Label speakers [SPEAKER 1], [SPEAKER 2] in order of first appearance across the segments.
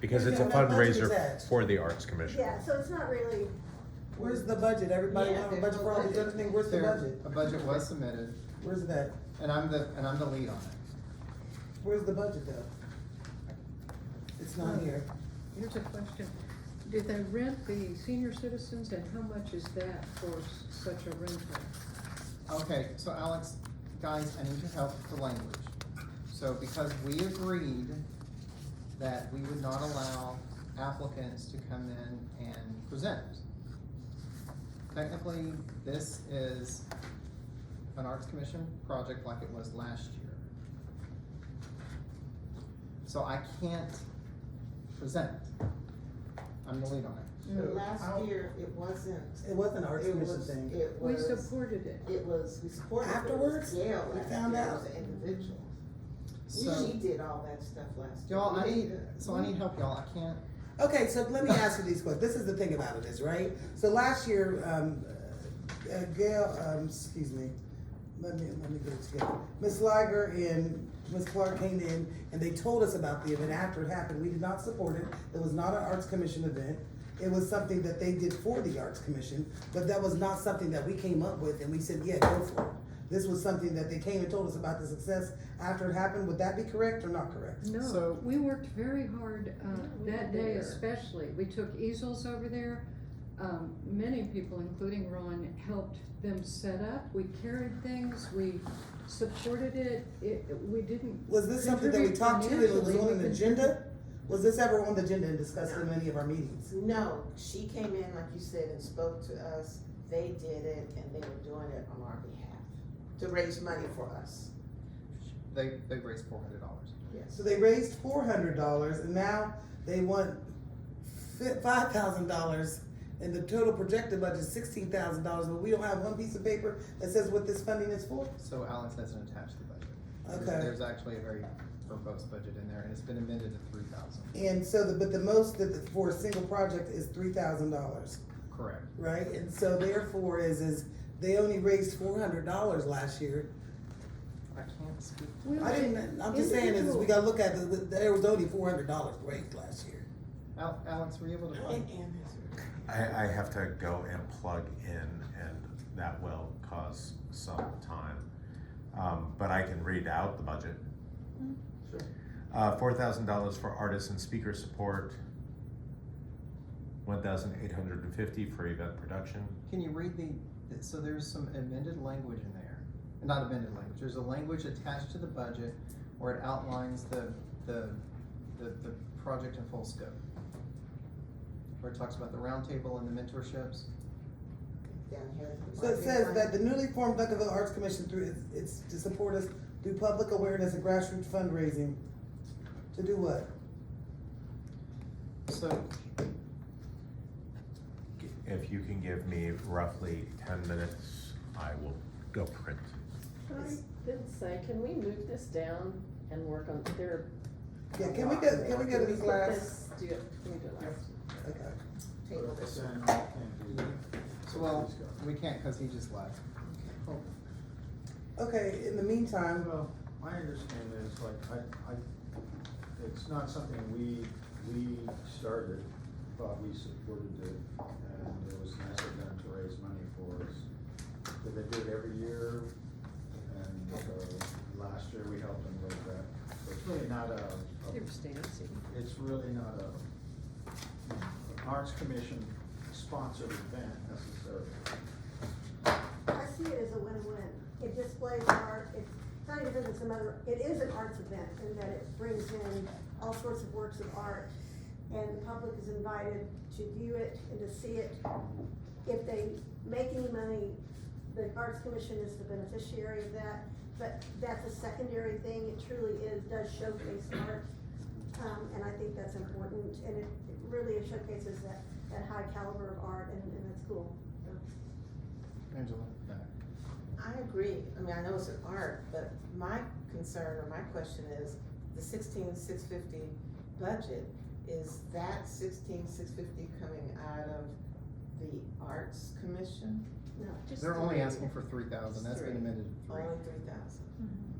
[SPEAKER 1] because it's
[SPEAKER 2] Yeah,
[SPEAKER 1] a
[SPEAKER 2] that budget is
[SPEAKER 1] fundraiser
[SPEAKER 2] asked.
[SPEAKER 1] for the Arts Commission.
[SPEAKER 3] Yeah, so it's not really,
[SPEAKER 2] Where's the budget? Everybody
[SPEAKER 4] Yeah,
[SPEAKER 2] want a
[SPEAKER 4] there's
[SPEAKER 2] budget
[SPEAKER 4] no
[SPEAKER 2] for all these
[SPEAKER 4] budget.
[SPEAKER 2] other things, where's the
[SPEAKER 5] There,
[SPEAKER 2] budget?
[SPEAKER 5] a budget was submitted,
[SPEAKER 2] Where's that?
[SPEAKER 5] and I'm the, and I'm the lead on it.
[SPEAKER 2] Where's the budget though? It's not here.
[SPEAKER 4] Here's a question. Do they rent the senior citizens and how much is that for s- such a rental?
[SPEAKER 5] Okay, so Alex, guys, I need your help with the language. So because we agreed that we would not allow applicants to come in and present. Technically, this is an Arts Commission project like it was last year. So I can't present. I'm the lead on it.
[SPEAKER 6] So last year, it wasn't.
[SPEAKER 2] It wasn't Mm. an arts
[SPEAKER 6] it
[SPEAKER 2] commission
[SPEAKER 6] was-
[SPEAKER 2] thing.
[SPEAKER 6] It
[SPEAKER 4] We
[SPEAKER 6] was,
[SPEAKER 4] supported it.
[SPEAKER 6] it was, we supported. it. It was
[SPEAKER 2] Afterwards,
[SPEAKER 6] Gail
[SPEAKER 2] we
[SPEAKER 6] last
[SPEAKER 2] found
[SPEAKER 6] year. It
[SPEAKER 2] out.
[SPEAKER 6] was an individual.
[SPEAKER 5] So-
[SPEAKER 6] She did all that stuff last year.
[SPEAKER 5] Y'all, I
[SPEAKER 6] We
[SPEAKER 5] need,
[SPEAKER 6] didn't.
[SPEAKER 5] so I need help, y'all, I can't,
[SPEAKER 2] Okay, so let me ask you these questions. This is the thing about it is, right? So last year, um, uh, Gail, um, excuse me, let me, let me get it together. Ms. Liger and Ms. Clark came in and they told us about the event after it happened. We did not support it. It was not an Arts Commission event. It was something that they did for the Arts Commission, but that was not something that we came up with and we said, yeah, go for it. This was something that they came and told us about the success after it happened. Would that be correct or not correct?
[SPEAKER 4] No,
[SPEAKER 5] So-
[SPEAKER 4] we worked very hard, uh,
[SPEAKER 6] we
[SPEAKER 4] that
[SPEAKER 6] were
[SPEAKER 4] day
[SPEAKER 6] there.
[SPEAKER 4] especially. We took easels over there. Um, many people, including Ron, helped them set up. We carried things, we supported it. It, we didn't.
[SPEAKER 2] Was this something that we
[SPEAKER 4] contribute
[SPEAKER 2] talked to, it was
[SPEAKER 4] financially.
[SPEAKER 2] on
[SPEAKER 4] We
[SPEAKER 2] an agenda? Was this ever on the agenda and discussed in any of our meetings?
[SPEAKER 6] No, she came in, like you said, and spoke to us. They did it and they were doing it on our behalf to raise money for us.
[SPEAKER 5] they, they raised four hundred dollars.
[SPEAKER 6] Yes.
[SPEAKER 2] So they raised four hundred dollars and now they want five thousand dollars and the total projected budget is sixteen thousand dollars, but we don't have one piece of paper that says what this funding is for?
[SPEAKER 5] So Alex hasn't attached the budget. There's-
[SPEAKER 2] Okay.
[SPEAKER 5] There's actually a very verbose budget in there, and it's been amended to three thousand,
[SPEAKER 2] And so, the- but the most that, the- for a single project is three thousand dollars.
[SPEAKER 5] correct?
[SPEAKER 2] right? And so therefore is, is they only raised four hundred dollars last year.
[SPEAKER 5] I can't speak.
[SPEAKER 4] We
[SPEAKER 2] I
[SPEAKER 4] were-
[SPEAKER 2] didn't, I'm just saying is, we gotta look at, the- there was only four hundred dollars raised last year.
[SPEAKER 5] Al- Alex, were you able to find?
[SPEAKER 6] And Ann has her.
[SPEAKER 1] I, I have to go and plug in, and that will cause some time. Um, but I can read out the budget.
[SPEAKER 2] Mm-hmm.
[SPEAKER 6] Sure.
[SPEAKER 1] Uh, four thousand dollars for artists and speaker support. One thousand eight hundred and fifty for event production.
[SPEAKER 5] Can you read the, the- so there's some amended language in there, not amended language, there's a language attached to the budget where it outlines the, the, the, the project in full scope. Where it talks about the roundtable and the mentorships.
[SPEAKER 6] Down here.
[SPEAKER 2] So it says that the newly formed Duncanville Arts Commission through, it's to support us through public awareness and grassroots fundraising. To do what?
[SPEAKER 5] So
[SPEAKER 1] If you can give me roughly ten minutes, I will go print.
[SPEAKER 7] I did say, can we move this down and work on, there?
[SPEAKER 2] Yeah, can we go, can we go to these
[SPEAKER 7] put
[SPEAKER 2] last?
[SPEAKER 7] this- Do it, can we do it last?
[SPEAKER 2] Okay.
[SPEAKER 6] Table this.
[SPEAKER 5] Well, we can't because he just left. Oh,
[SPEAKER 2] Okay, in the meantime,
[SPEAKER 8] Well, my understanding is like, I, I, it's not something we, we started, but we supported it. And it was nice of them to raise money for us. But they do it every year. And so last year we helped them with that. So it's really not a, a-
[SPEAKER 4] There's Nancy.
[SPEAKER 8] it's really not a, an arts commission sponsored event necessarily.
[SPEAKER 3] I see it as a win-win. It displays art, it's not even that it's another, it is an arts event in that it brings in all sorts of works of art. And the public is invited to view it and to see it. If they make any money, the Arts Commission is the beneficiary of that. But that's a secondary thing. It truly is, does showcase art. Um, and I think that's important and it it really showcases that, that high caliber of art and, and that's cool.
[SPEAKER 5] Angela? No.
[SPEAKER 6] I agree. I mean, I know it's an art, but my concern or my question is, the sixteen six fifty budget, is that sixteen six fifty coming out of the Arts Commission?
[SPEAKER 3] No.
[SPEAKER 5] They're only asking for three thousand, that's been
[SPEAKER 6] Three.
[SPEAKER 5] amended to
[SPEAKER 6] Oh,
[SPEAKER 5] three.
[SPEAKER 6] Only three thousand?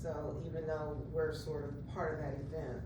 [SPEAKER 6] So even though we're sort of part of that event,